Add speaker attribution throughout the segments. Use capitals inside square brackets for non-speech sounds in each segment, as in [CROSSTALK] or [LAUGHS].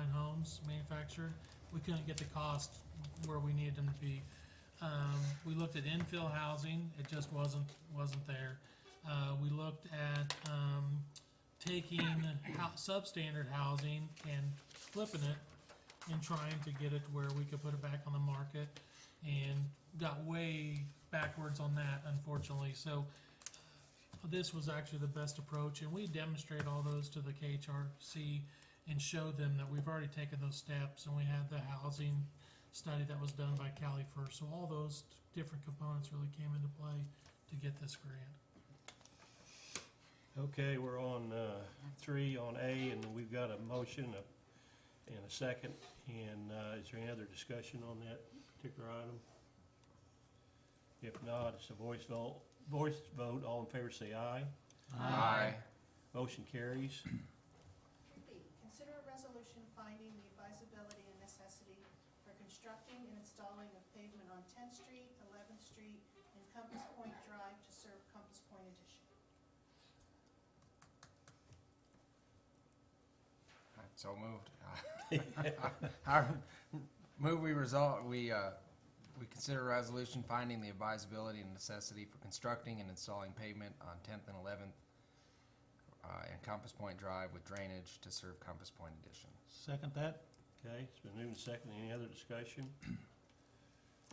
Speaker 1: systems manufacturer. We couldn't get the cost where we needed them to be. Um, we looked at infill housing, it just wasn't, wasn't there. Uh, we looked at, um, taking hou- substandard housing and flipping it and trying to get it to where we could put it back on the market and got way backwards on that unfortunately, so this was actually the best approach and we demonstrate all those to the KHRC and show them that we've already taken those steps and we had the housing study that was done by Cali first, so all those different components really came into play to get this grant.
Speaker 2: Okay, we're on uh, three, on A, and we've got a motion a- and a second. And uh, is there any other discussion on that particular item? If not, it's a voice vote. Voice vote, all in favor say aye.
Speaker 3: Aye.
Speaker 2: Motion carries.
Speaker 4: B, consider a resolution finding the advisability and necessity for constructing and installing of pavement on Tenth Street, Eleventh Street, and Compass Point Drive to serve Compass Point Addition.
Speaker 3: So moved. [LAUGHS] I move we resolve, we, uh, we consider a resolution finding the advisability and necessity for constructing and installing pavement on Tenth and Eleventh uh, and Compass Point Drive with drainage to serve Compass Point Addition.
Speaker 5: Second that?
Speaker 2: Okay, it's been moved and seconded. Any other discussion?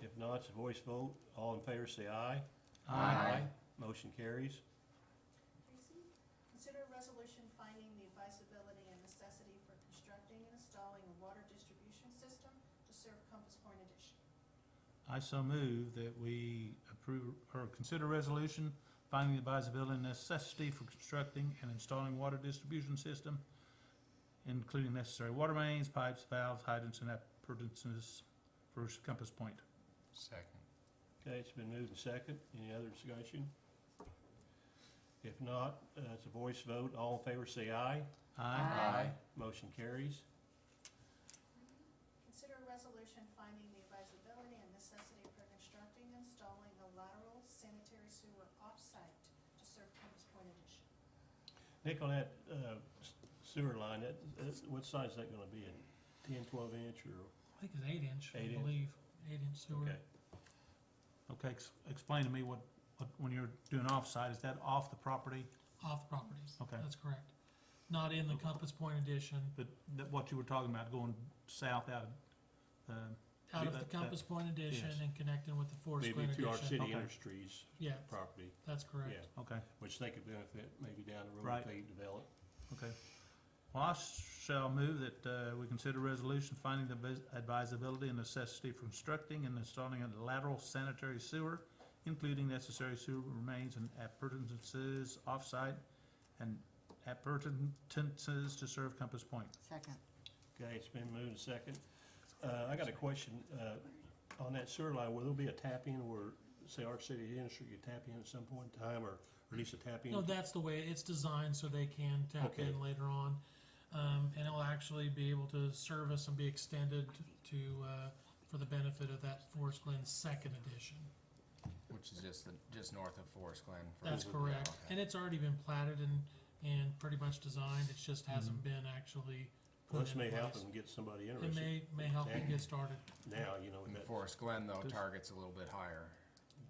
Speaker 2: If not, it's a voice vote. All in favor say aye. Motion carries.
Speaker 4: Three C, consider a resolution finding the advisability and necessity for constructing and installing a water distribution system to serve Compass Point Addition.
Speaker 5: I so move that we approve, or consider resolution finding the advisability and necessity for constructing and installing water distribution system, including necessary water mains, pipes, valves, hydrants, and appurtenances for Compass Point.
Speaker 3: Second.
Speaker 2: Okay, it's been moved and second. Any other discussion? If not, uh, it's a voice vote. All in favor say aye.
Speaker 5: Aye.
Speaker 2: Motion carries.
Speaker 4: Consider a resolution finding the advisability and necessity for constructing and installing a lateral sanitary sewer offsite to serve Compass Point Addition.
Speaker 2: Nick, on that uh, s- sewer line, that, that's- what size is that gonna be? A Ten, twelve inch or?
Speaker 1: I think it's eight inch, I
Speaker 2: Eight inch?
Speaker 1: believe, eight inch sewer.
Speaker 2: Okay.
Speaker 5: Okay, ex- explain to me what, what, when you're doing offsite, is that off the property?
Speaker 1: Off property.
Speaker 5: Okay.
Speaker 1: That's correct. Not in the Compass Point addition,
Speaker 5: But that, what you were talking about going south out of, um,
Speaker 1: out of
Speaker 5: Yeah,
Speaker 1: the
Speaker 5: that-
Speaker 1: Compass Point addition
Speaker 5: yes.
Speaker 1: and connecting with the Forest
Speaker 2: Maybe
Speaker 1: Glen
Speaker 2: to our
Speaker 1: addition.
Speaker 2: city
Speaker 5: Okay.
Speaker 2: industries
Speaker 1: Yeah,
Speaker 2: property,
Speaker 1: that's correct.
Speaker 2: yeah,
Speaker 5: okay.
Speaker 2: which they could benefit maybe down the road
Speaker 5: Right.
Speaker 2: if they develop.
Speaker 5: Okay. Well, I shall move that uh, we consider resolution finding the vis- advisability and necessity for constructing and installing a lateral sanitary sewer, including necessary sewer remains and appurtenances offsite and appurtenances to serve Compass Point.
Speaker 6: Second.
Speaker 2: Okay, it's been moved and second. Uh, I got a question, uh, on that sewer line, will there be a tap in where, say, our city industry could tap in at some point in time or release a tap in?
Speaker 1: No, that's the way it's designed so they can tap
Speaker 2: Okay.
Speaker 1: in later on. Um, and it'll actually be able to service and be extended to, uh, for the benefit of that Forest Glen second edition.
Speaker 3: Which is just the, just north of Forest Glen. for-
Speaker 1: That's
Speaker 3: Yeah,
Speaker 1: correct.
Speaker 3: okay.
Speaker 1: And it's already been platted and, and pretty much designed. It just hasn't been actually
Speaker 2: Mm-hmm. Well,
Speaker 1: put
Speaker 2: This
Speaker 1: in
Speaker 2: may help
Speaker 1: place.
Speaker 2: them get somebody
Speaker 1: It
Speaker 2: interested
Speaker 1: may, may help you
Speaker 2: Yeah.
Speaker 1: get started.
Speaker 2: now, you know,
Speaker 3: And
Speaker 2: that,
Speaker 3: Forest Glen though
Speaker 5: Does-
Speaker 3: targets a little bit higher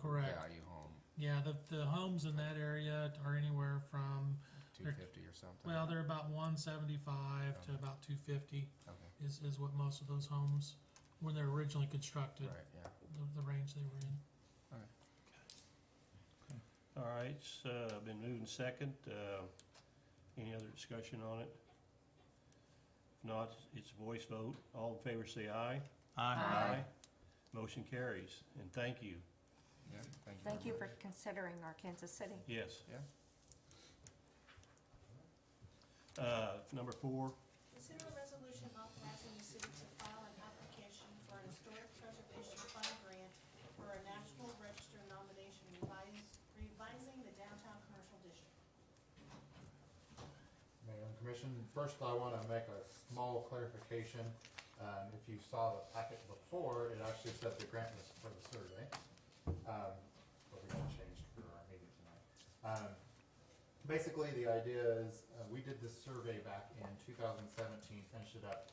Speaker 1: Correct.
Speaker 3: value home,
Speaker 1: Yeah, the, the homes in that area are anywhere from,
Speaker 3: two fifty or something.
Speaker 1: well, they're about one seventy-five to about two fifty
Speaker 3: Okay,
Speaker 1: is, is what most of those homes, when they're originally constructed,
Speaker 3: right, yeah.
Speaker 1: the, the range they were in.
Speaker 2: all right, it's, uh, been moved and second, uh, any other discussion on it? If not, it's a voice vote, all in favor say aye.
Speaker 5: Aye.
Speaker 2: Motion carries, and thank you,
Speaker 3: Yeah, thank you.
Speaker 6: Thank you
Speaker 3: very
Speaker 6: for considering our Kansas City.
Speaker 2: yes.
Speaker 3: Yeah.
Speaker 2: Uh, number four,
Speaker 4: Consider a resolution authorizing the city to file an application for an historic preservation fund grant for a national register nomination revising, revising the downtown commercial district.
Speaker 7: Mayor and Commission, first I want to make a small clarification. Um, If you saw the packet before, it actually said the grant was for the survey. Um, But we got it changed for our meeting tonight. Um, Basically, the idea is, uh, we did this survey back in 2017, finished it up